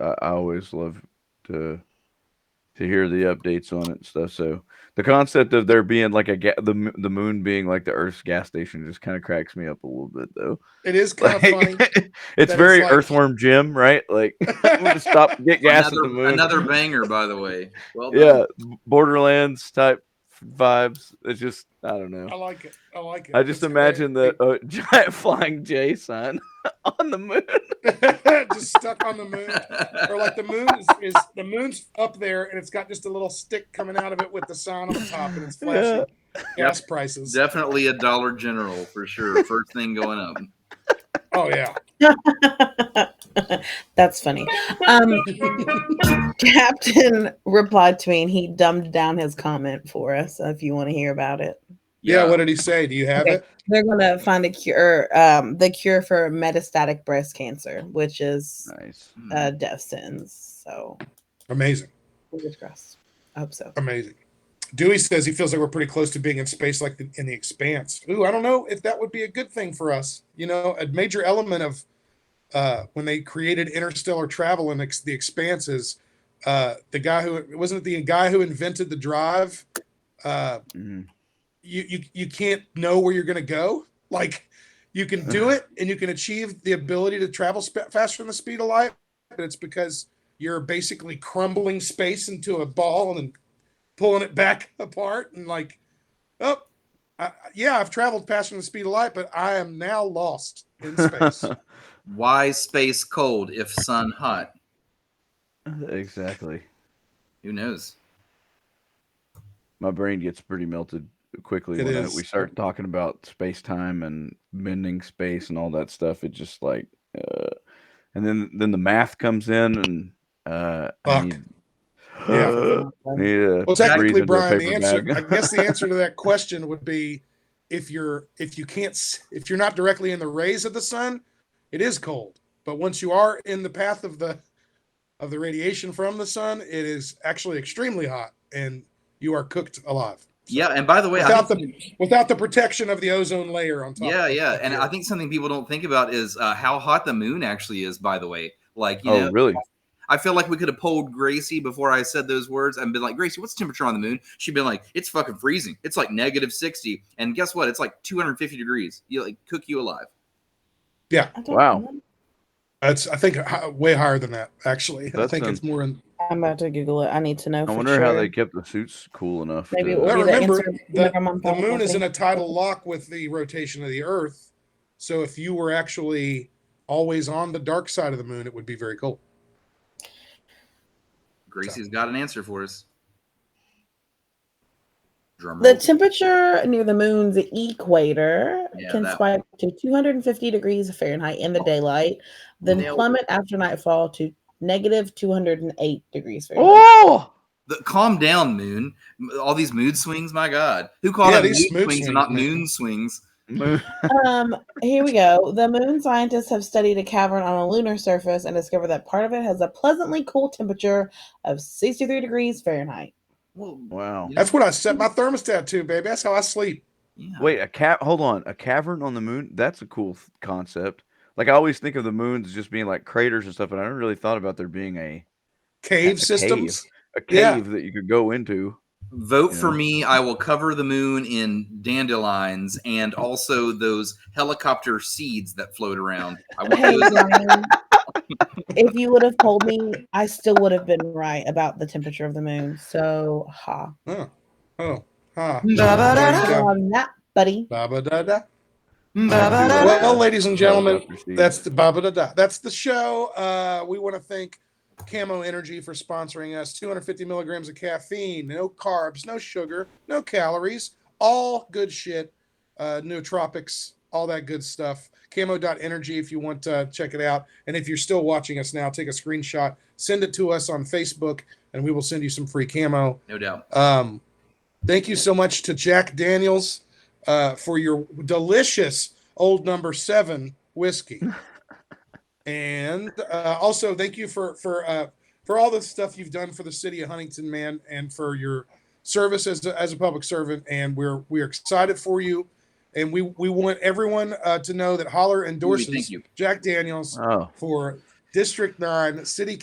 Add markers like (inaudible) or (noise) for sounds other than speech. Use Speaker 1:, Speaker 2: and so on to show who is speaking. Speaker 1: I, I always love to to hear the updates on it and stuff. So the concept of there being like a ga- the m- the moon being like the Earth's gas station just kind of cracks me up a little bit though. (laughs)
Speaker 2: It is kind
Speaker 1: Like,
Speaker 2: of funny.
Speaker 1: (laughs) it's
Speaker 2: it's
Speaker 1: very
Speaker 2: like-
Speaker 1: Earthworm Jim, right?
Speaker 2: (laughs)
Speaker 1: Like I'm (laughs) gonna stop and get gas
Speaker 3: another,
Speaker 1: at the moon.
Speaker 3: another banger, by the way. Well done.
Speaker 1: yeah, Borderlands type vibes. It's just I don't know.
Speaker 2: I like it. I like it.
Speaker 1: I just
Speaker 2: It's great.
Speaker 1: imagine the uh, (laughs) giant flying J sign (laughs) on the moon.
Speaker 2: (laughs) just stuck on the moon, or like the moon is, is the moon's up there, and it's got just a little stick coming out of it with the sign on the top, and it's flashing gas prices.
Speaker 3: (laughs) Definitely a Dollar General for sure. First thing going up.
Speaker 2: Oh yeah,
Speaker 4: (laughs) That's funny. Um, Captain replied to me and he dumbed down his comment for us. So if you want to hear about it,
Speaker 2: yeah. What did he say? Do you have it?
Speaker 4: they're gonna find a cure, um, the cure for metastatic breast cancer, which is
Speaker 1: (laughs) Nice.
Speaker 3: Hmm.
Speaker 4: uh, death sentence. So
Speaker 2: Amazing,
Speaker 4: fingers crossed. I hope so.
Speaker 2: amazing. Dewey says he feels like we're pretty close to being in space, like the, in the expanse. Ooh, I don't know if that would be a good thing for us. You know, a major element of uh, when they created interstellar travel and ex- the expanse is uh, the guy who wasn't it the guy who invented the drive. Uh,
Speaker 1: Mhm.
Speaker 2: you you you can't know where you're going to go. Like you can do it and you can achieve the ability to travel sp- faster than the speed of light, but it's because you're basically crumbling space into a ball and then pulling it back (laughs) apart and like oh I, I- yeah, I've traveled faster than the speed of light, but I am now lost in space.
Speaker 3: Why space cold if sun hot?
Speaker 1: (laughs) exactly.
Speaker 3: Who knows?
Speaker 1: My brain gets pretty melted quickly
Speaker 2: It
Speaker 1: when I-
Speaker 2: is.
Speaker 1: we start talking about space time and bending space and all that stuff. It just like, uh, and then then the math comes in and uh, I
Speaker 2: Fuck.
Speaker 1: need, Uh, (gasps)
Speaker 2: Yeah.
Speaker 1: need a
Speaker 2: Well, technically,
Speaker 1: reason to a
Speaker 2: Brian, the
Speaker 1: paper (laughs)
Speaker 2: answer,
Speaker 1: bag.
Speaker 2: I guess the answer to that question would be if you're, if you can't, s- if you're not directly in the rays of the sun, it is cold. But once you are in the path of the, of the radiation from the sun, it is actually extremely hot and you are cooked alive
Speaker 3: Yeah, and by the way, I
Speaker 2: Without
Speaker 3: think-
Speaker 2: the- without the protection of the ozone layer on top.
Speaker 3: yeah, yeah, and I think something people don't think about is uh, how hot the moon actually is. By the way, like you
Speaker 1: oh,
Speaker 3: know,
Speaker 1: really?
Speaker 3: I feel like we could have polled Gracie before I said those words and been like, Gracie, what's the temperature on the moon? She'd been like, it's fucking freezing. It's like negative 60. And guess what? It's like 250 degrees. You like cook you alive.
Speaker 4: I don't
Speaker 1: Wow.
Speaker 4: know.
Speaker 2: It's, I think hi- way higher than that, actually. I
Speaker 1: That
Speaker 2: think
Speaker 1: sounds-
Speaker 2: it's more in,
Speaker 4: I'm about to Google it. I need to know.
Speaker 1: I
Speaker 4: for
Speaker 1: wonder how
Speaker 4: sure.
Speaker 1: they kept the suits cool enough.
Speaker 4: Maybe it
Speaker 1: to-
Speaker 2: (laughs)
Speaker 4: will
Speaker 2: Well,
Speaker 4: be the
Speaker 2: remember,
Speaker 4: answer.
Speaker 2: the- the moon is in a tidal lock with the rotation of the earth so if you were actually always on the dark side of the moon it would be very cold
Speaker 3: Gracie's got an answer for us. Drum
Speaker 4: The
Speaker 3: roll.
Speaker 4: temperature near the moon's equator
Speaker 3: Yeah,
Speaker 4: can
Speaker 3: that Oh,
Speaker 4: spike to 250 degrees Fahrenheit in the daylight, then
Speaker 3: Nailed it.
Speaker 4: plummet after nightfall to negative 208 degrees Fahrenheit.
Speaker 1: Oh,
Speaker 3: The- calm down, moon. All these mood swings, my God. Who called
Speaker 2: Yeah,
Speaker 3: it mood
Speaker 2: these
Speaker 3: swings,
Speaker 2: mood
Speaker 3: and not
Speaker 2: swings, man.
Speaker 3: moon swings?
Speaker 4: Um, here we go. The moon scientists have studied a cavern on a lunar surface and discovered that part of it has a pleasantly cool temperature of 63 degrees Fahrenheit.
Speaker 3: Well,
Speaker 1: (laughs) wow.
Speaker 3: Yeah.
Speaker 2: that's what i set my thermostat to baby that's how i sleep
Speaker 3: yeah.
Speaker 1: Wait, a cat. Hold on, a cavern on the moon. That's a cool th- concept. Like I always think of the moons as just being like craters and stuff, and I never really thought about there being a
Speaker 2: cave
Speaker 1: That's a cave.
Speaker 2: systems
Speaker 1: a cave
Speaker 2: Yeah.
Speaker 1: that you could go into.
Speaker 3: Vote for
Speaker 1: Yeah.
Speaker 3: me. I will cover the moon in dandelions and also those helicopter seeds that float around. I want
Speaker 4: Hey,
Speaker 3: those
Speaker 4: Ryan, if you would have told me, I still would have been right about the temperature of the moon. So, ha.
Speaker 2: oh huh
Speaker 4: Well, I'm not, buddy.
Speaker 2: Ba-ba-da-da. Mm,
Speaker 1: Ba-ba-da-da.
Speaker 2: Well, well, ladies and gentlemen,
Speaker 1: Helicopter seat.
Speaker 2: that's the ba-ba-da-da. That's the show. Uh, we want to thank Camo Energy for sponsoring us. 250 milligrams of caffeine, no carbs, no sugar, no calories, all good shit. Uh, nootropics, all that good stuff. Camo.energy if you want to check it out. And if you're still watching us now, take a screenshot, send it to us on Facebook, and we will send you some free camo.
Speaker 3: No doubt.
Speaker 2: Um, thank you so much to Jack Daniels uh, for your delicious old number seven whiskey, and uh, also thank you for for uh, for all the stuff you've done for the city of Huntington, man, and for your service as a, as a public servant. And we're we're excited for you, and we we want everyone uh, to know that Holler
Speaker 3: Dewey,
Speaker 2: endorses
Speaker 3: Thank you.
Speaker 2: Jack Daniels
Speaker 1: Oh.
Speaker 2: for District Nine City